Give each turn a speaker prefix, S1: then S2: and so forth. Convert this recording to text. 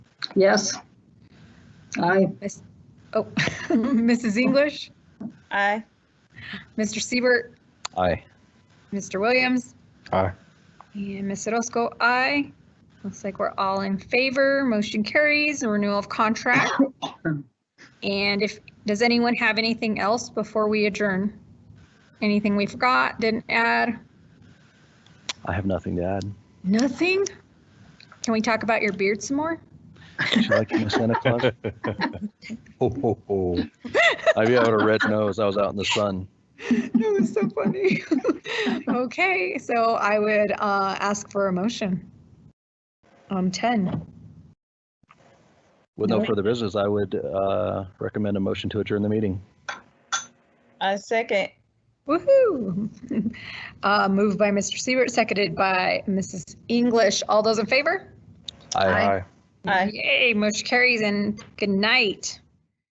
S1: Yes. Aye.
S2: Oh, Mrs. English,
S3: Aye.
S2: Mr. Siebert,
S4: Aye.
S2: Mr. Williams,
S4: Aye.
S2: and Ms. Orozco, aye. Looks like we're all in favor. Motion carries, renewal of contract. And if, does anyone have anything else before we adjourn? Anything we forgot, didn't add?
S4: I have nothing to add.
S2: Nothing? Can we talk about your beard some more?
S4: Would you like to be Santa Claus? Ho, ho, ho. I'd be out a red nose. I was out in the sun.
S2: That was so funny. Okay, so I would uh, ask for a motion. Um, 10.
S4: With no
S3: Nope.
S4: further business, I would uh, recommend a motion to adjourn the meeting.
S3: I second.
S2: Woohoo! Uh, Moved by Mr. Siebert, seconded by Mrs. English. All those in favor?
S4: Aye.
S3: Aye.
S2: Yay, motion carries and good night.